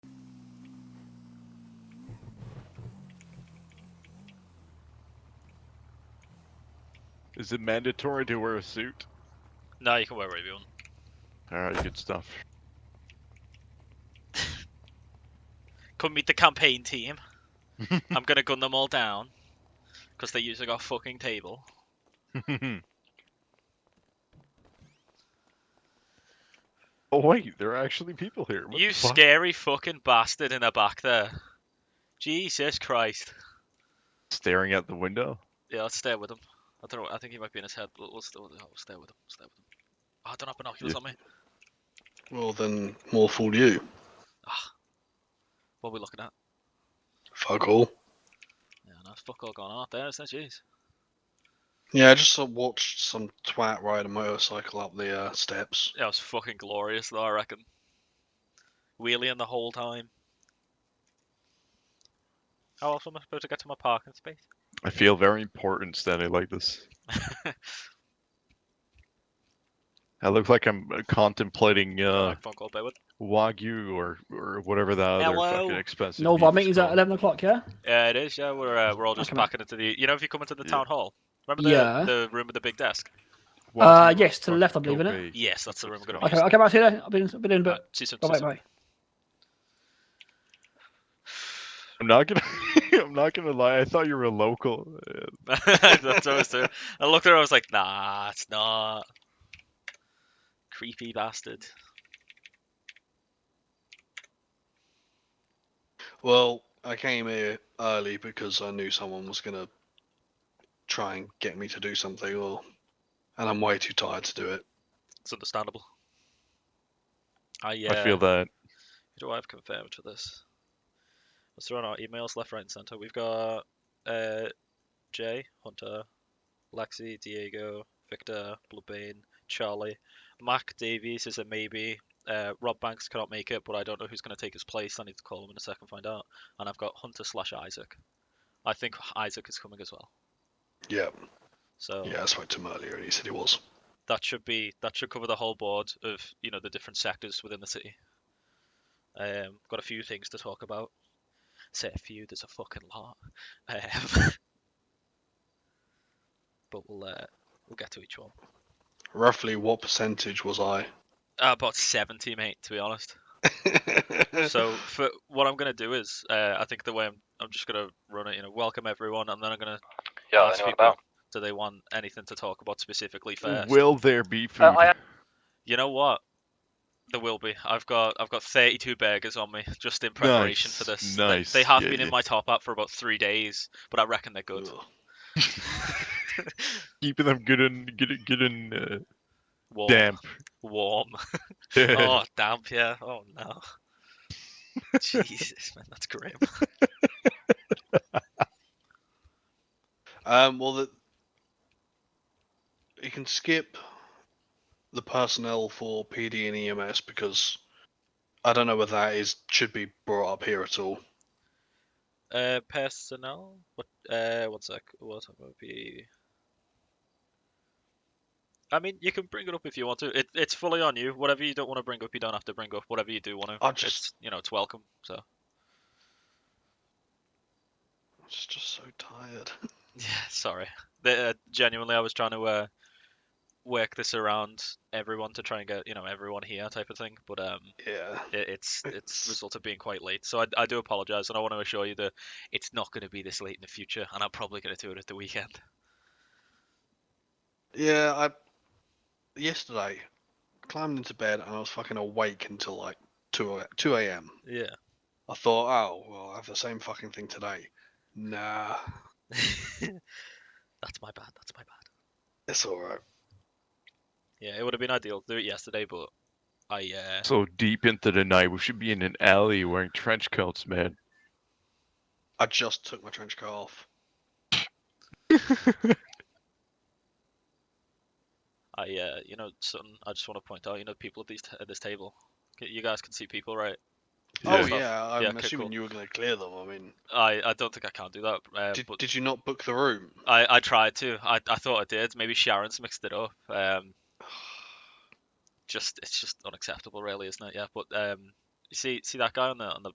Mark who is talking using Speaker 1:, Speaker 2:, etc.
Speaker 1: Is it mandatory to wear a suit?
Speaker 2: No, you can wear whatever you want.
Speaker 1: Alright, good stuff.
Speaker 2: Come meet the campaign team. I'm gonna gun them all down because they usually got a fucking table.
Speaker 1: oh wait, there are actually people here. What
Speaker 2: you
Speaker 1: the fuck?
Speaker 2: scary fucking bastard in the back there. Jesus Christ.
Speaker 1: staring out the window?
Speaker 2: Yeah, let's stay with him. I don't know. I think he might be in his head. We'll, we'll, stay, with him. we'll stay with him. Stay with him. Oh, I don't have binoculars
Speaker 1: Yeah.
Speaker 2: on me.
Speaker 3: Well, then more fool you.
Speaker 2: What are we looking at?
Speaker 3: Fuck all.
Speaker 2: Yeah, no, it's fuck all gone out there, isn't it? Jeez.
Speaker 3: Yeah, I just uh, watched some twat ride a motorcycle up the uh, steps.
Speaker 2: Yeah, it was fucking glorious though, I reckon. Wheeling the whole time. How else am I supposed to get to my parking space?
Speaker 1: I feel very important standing like this. I look like I'm uh, contemplating uh,
Speaker 2: Like, phone call, bear with-
Speaker 1: wagyu or or whatever that other
Speaker 2: Hello?
Speaker 1: fucking expensive.
Speaker 4: No
Speaker 1: meat
Speaker 4: VOD
Speaker 1: is
Speaker 4: meetings at
Speaker 1: called.
Speaker 4: 11 o'clock, yeah?
Speaker 2: Yeah, it is. Yeah, we're uh, we're all just
Speaker 4: can I-
Speaker 2: packing into the. You know, if you come into the
Speaker 1: Yeah.
Speaker 2: town hall, remember the
Speaker 4: Yeah.
Speaker 2: the room with the big desk.
Speaker 1: Wagyu
Speaker 4: Uh, yes, to
Speaker 1: fucking
Speaker 4: the left, I believe, innit?
Speaker 1: Kobe.
Speaker 2: Yes, that's the room we're gonna.
Speaker 4: Okay,
Speaker 2: use.
Speaker 4: I'll Oh, get back to you then. I'll be in, I'll be in a
Speaker 2: Right,
Speaker 4: bit.
Speaker 2: see you soon,
Speaker 4: Bye
Speaker 2: see you
Speaker 4: bye
Speaker 2: soon.
Speaker 4: bye.
Speaker 1: I'm not gonna. I'm not gonna lie. I thought you were local. Uh,
Speaker 2: that's what I was doing. I looked at her. I was like, nah, it's not. Creepy bastard.
Speaker 3: Well, I came here early because I knew someone was gonna try and get me to do something, or and I'm way too tired to do it.
Speaker 2: It's understandable. I yeah.
Speaker 1: I feel that.
Speaker 2: Who do I have confirmed for this? Let's throw on our emails left, right, and center. We've got uh, Jay, Hunter, Lexi, Diego, Victor, Bluebane, Charlie, Mac Davies is a maybe. Uh, Rob Banks cannot make it, but I don't know who's going to take his place. I need to call him in a second, find out. And I've got Hunter slash Isaac. I think Isaac is coming as well.
Speaker 3: Yeah,
Speaker 2: So
Speaker 3: yeah, I spoke to him earlier, and he said he was.
Speaker 2: that should be that should cover the whole board of you know the different sectors within the city. Um, got a few things to talk about. Say a few, there's a fucking lot. Um, but we'll uh, we'll get to each one.
Speaker 3: Roughly, what percentage was I?
Speaker 2: Uh, about seventy, mate. To be honest. so for what I'm gonna do is, uh, I think the way I'm, I'm just gonna run it, you know, welcome everyone, and then I'm gonna
Speaker 5: Yeah, I
Speaker 2: ask
Speaker 5: know what
Speaker 2: people,
Speaker 5: about.
Speaker 2: do they want anything to talk about specifically first?
Speaker 1: Will there be food?
Speaker 5: I have-
Speaker 2: You know what? There will be. I've got I've got 32 burgers on me just in preparation for
Speaker 1: Nice,
Speaker 2: this. They- They,
Speaker 1: nice,
Speaker 2: have
Speaker 1: yeah,
Speaker 2: been in
Speaker 1: yeah.
Speaker 2: my top up for about three days, but I reckon they're good.
Speaker 3: Ugh.
Speaker 1: Keeping them good and good, and- good and uh,
Speaker 2: warm,
Speaker 1: damp.
Speaker 2: warm. oh, damp, yeah. Oh no. Jesus, man, that's grim.
Speaker 3: Um, well, the, you can skip the personnel for PD and EMS because I don't know whether that is should be brought up here at all.
Speaker 2: Uh, personnel. What? Uh, one sec. What would be? I mean, you can bring it up if you want to. It, it's fully on you. Whatever you don't want to bring up, you don't have to bring up. Whatever you do want to,
Speaker 3: I'll just-
Speaker 2: it's, you know, it's welcome. So.
Speaker 3: I'm just, just so tired.
Speaker 2: Yeah, sorry. The, uh, genuinely, I was trying to uh, work this around everyone to try and get you know everyone here type of thing, but um,
Speaker 3: Yeah.
Speaker 2: it, it's it's
Speaker 3: It's-
Speaker 2: resulted being quite late. So I, I do apologise, and I want to assure you that it's not going to be this late in the future, and I'm probably going to do it at the weekend.
Speaker 3: Yeah, I yesterday climbed into bed and I was fucking awake until like two a- two a.m.
Speaker 2: Yeah.
Speaker 3: I thought, oh well, I have the same fucking thing today. Nah,
Speaker 2: that's my bad. That's my bad.
Speaker 3: it's all right.
Speaker 2: Yeah, it would have been ideal to do it yesterday, but I uh,
Speaker 1: so deep into the night, we should be in an alley wearing trench coats, man.
Speaker 3: I just took my trench coat off.
Speaker 2: I uh, you know something. I just want to point out, you know, people at these t- at this table. C- You guys can see people, right?
Speaker 3: Oh
Speaker 2: Yeah.
Speaker 3: yeah, I'm
Speaker 2: Yeah, okay,
Speaker 3: assuming
Speaker 2: cool.
Speaker 3: you were gonna clear them. I mean,
Speaker 2: I, I don't think I can do that. Uh,
Speaker 3: did,
Speaker 2: but
Speaker 3: did you not book the room?
Speaker 2: I, I tried to. I, I thought I did. Maybe Sharon's mixed it up. Um, just it's just unacceptable, really, isn't it? Yeah. But um, you see see that guy on the on the